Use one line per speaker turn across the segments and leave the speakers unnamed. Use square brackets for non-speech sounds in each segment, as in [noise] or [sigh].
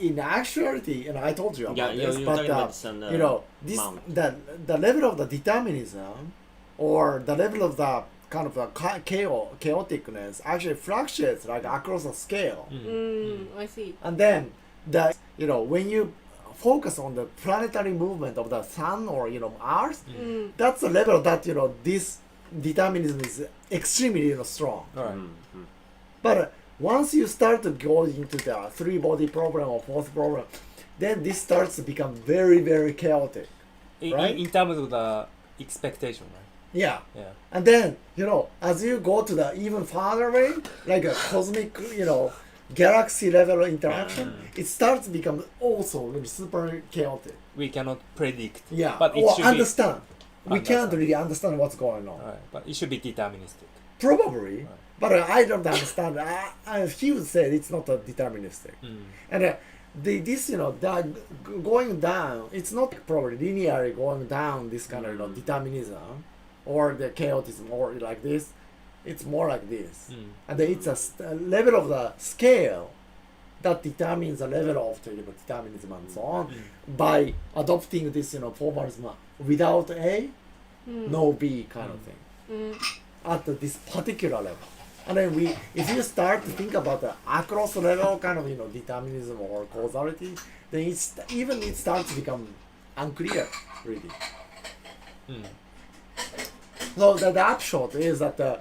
in actuality, and I told you about
Yeah, you-
this,
you were
but
talking
uh,
about this on the
you know, this
mount.
the the level of the determinism, or the level of the kind of the cha- chao- chaoticness actually fluctuates like across the scale,
Mm, I see.
and then the you know when you focus on the planetary movement of the sun or you know Earth,
Mm.
that's the level that you know this determinism is extremely you know, strong.
All right.
But uh, once you start to go into the three body problem or fourth problem, then this starts to become very, very chaotic.
In,
Right?
in, in terms of the expectation, right?
Yeah.
Yeah.
And then, you know, as you go to the even farther away, like a cosmic, you know, galaxy level interaction, it starts to become also really super chaotic.
We cannot predict.
Yeah.
But it
or
should be-
understand. We can't
Understand.
really understand what's going on.
All right. But it should be deterministic.
Probably,
Right.
but uh, I don't understand. I, I, he would say it's not a deterministic.
Mm,
And uh, the, this, you know, that g- going down, it's not probably linearly going down this kind of you know, determinism or the chaotism or like this. It's more like this.
mm.
And then it's a, st- a level of the scale that determines the level of the you know, determinism and so on by adopting this, you know, formalism without A, no B kind of thing at this particular level. And then we, if you start to think about the across level kind of you know determinism or causality, then it's even it starts to become unclear really. So the, the upshot is that uh,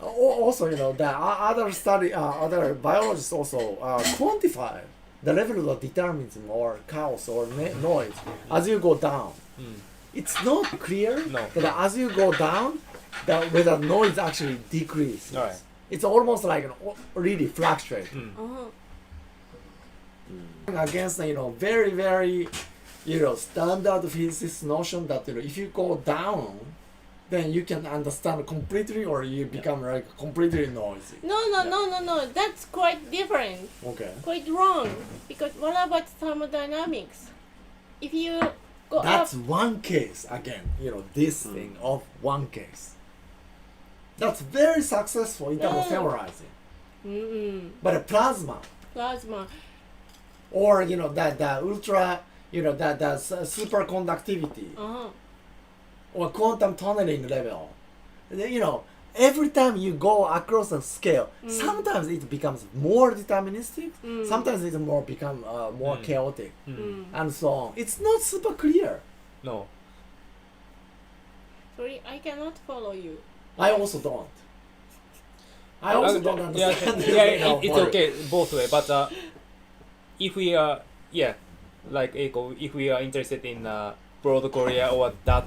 al- also you know the o- other study uh, other biologists also uh, quantify the level of determinism or chaos or ne- noise as you go down. It's not clear
Hmm. No.
that as you go down, the whether noise actually decreases.
All right.
It's almost like an o- really fluctuate
Oh,
against you know very very you know standard physics notion that you know if you go down, then you can understand completely or you become like completely noisy.
no, no, no, no, no. That's quite different.
Okay.
Quite wrong. Because what about thermodynamics? If you go
That's
up,
one case again. You know this thing of one case. That's very successful in terms of
Mm.
theorizing.
mm,
But a plasma,
plasma.
or you know that the ultra you know that the superconductivity
Uh-huh.
or quantum tunneling level Then, you know every time you go across a scale sometimes it becomes more deterministic sometimes it more become uh, more chaotic
Mm.
and so on it's not super clear
No.
Sorry, I cannot follow you.
i also don't i also don't
Uh,
understand
Yeah,
[laughs] the
[laughs] yeah,
level
it, it's
for it.
okay both way. But uh, if we are, yeah, like Eiko, if we are interested in uh, broad Korea or that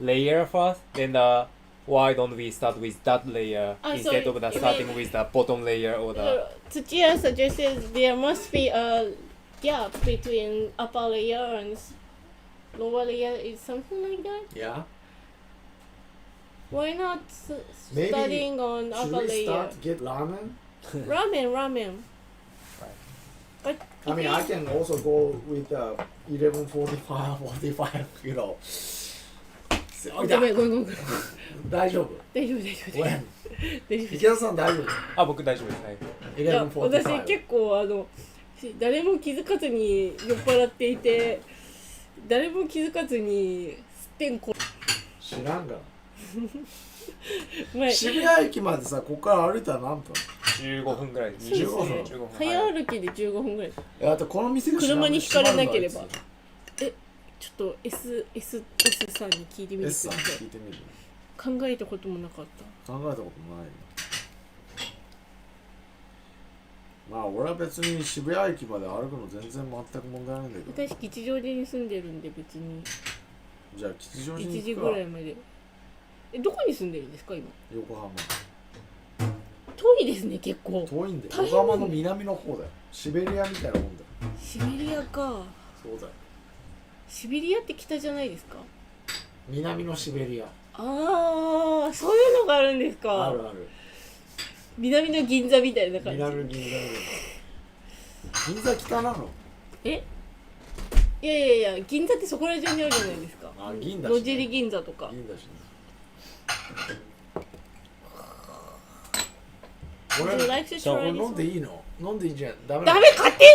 layer first, then uh, why don't we start with that layer
Ah, so
instead of the
you
starting
mean-
with the bottom layer or the
Uh, Tsuchiya suggested there must be a gap between upper layer and s- lower layer. Is something like that?
yeah
Why not s-
Maybe
studying on
should
upper
we
layer?
start get ramen
Ramen, ramen. But
I
if
mean,
you-
I can also go with uh, [laughs] 1145, 45, you know. So,
ご
いや
めんごめんごめん [laughs]
大丈夫。
大丈夫大丈夫大丈
When?
夫 [laughs] 大丈夫
池田さん大丈夫。
あ僕大丈夫ですはい
いや私
1145。
結構あのし誰も気づかずに酔っ払っていて誰も気づかずにすってんこ
知らんが。
前
渋谷駅までさ、ここから歩いたら何分
15分ぐらいです
15分
15分
早歩きで15分ぐらい
えあとこの店が知らん
車にひかれなければ
知らんが
ちょっと SS S さんに聞いてみ
あいつ
て
S
く
さ
だ
ん
さ
聞
い
いてみる。
考えたこともなかっ
考えたことないよまあ俺は別に渋谷駅まで歩くの全然全く問題ないんだけ
た
ど
私吉祥寺に住んでるんで別に
じゃあ吉祥寺
1
に
時
行
ぐ
くから
いまでえどこに住んでるんですか今
横浜
遠いですね結構
遠いんだよ
大変
横浜の南の方だよシベリアみたいなもんだよ
シベリアか
そうだよ
シベリアって北じゃないですか
南のシベリア
ああそういうのがあるんですか
あるある
南の銀座みたいな感じ
南銀座銀座北なの
えいやいやいや銀座ってそこら中にあるじゃないですか
あ銀だしね
野尻銀座とか
銀だしね俺
来週
これ飲ん
ダ
でいいの飲んでいいじゃんダメなの
メ勝手に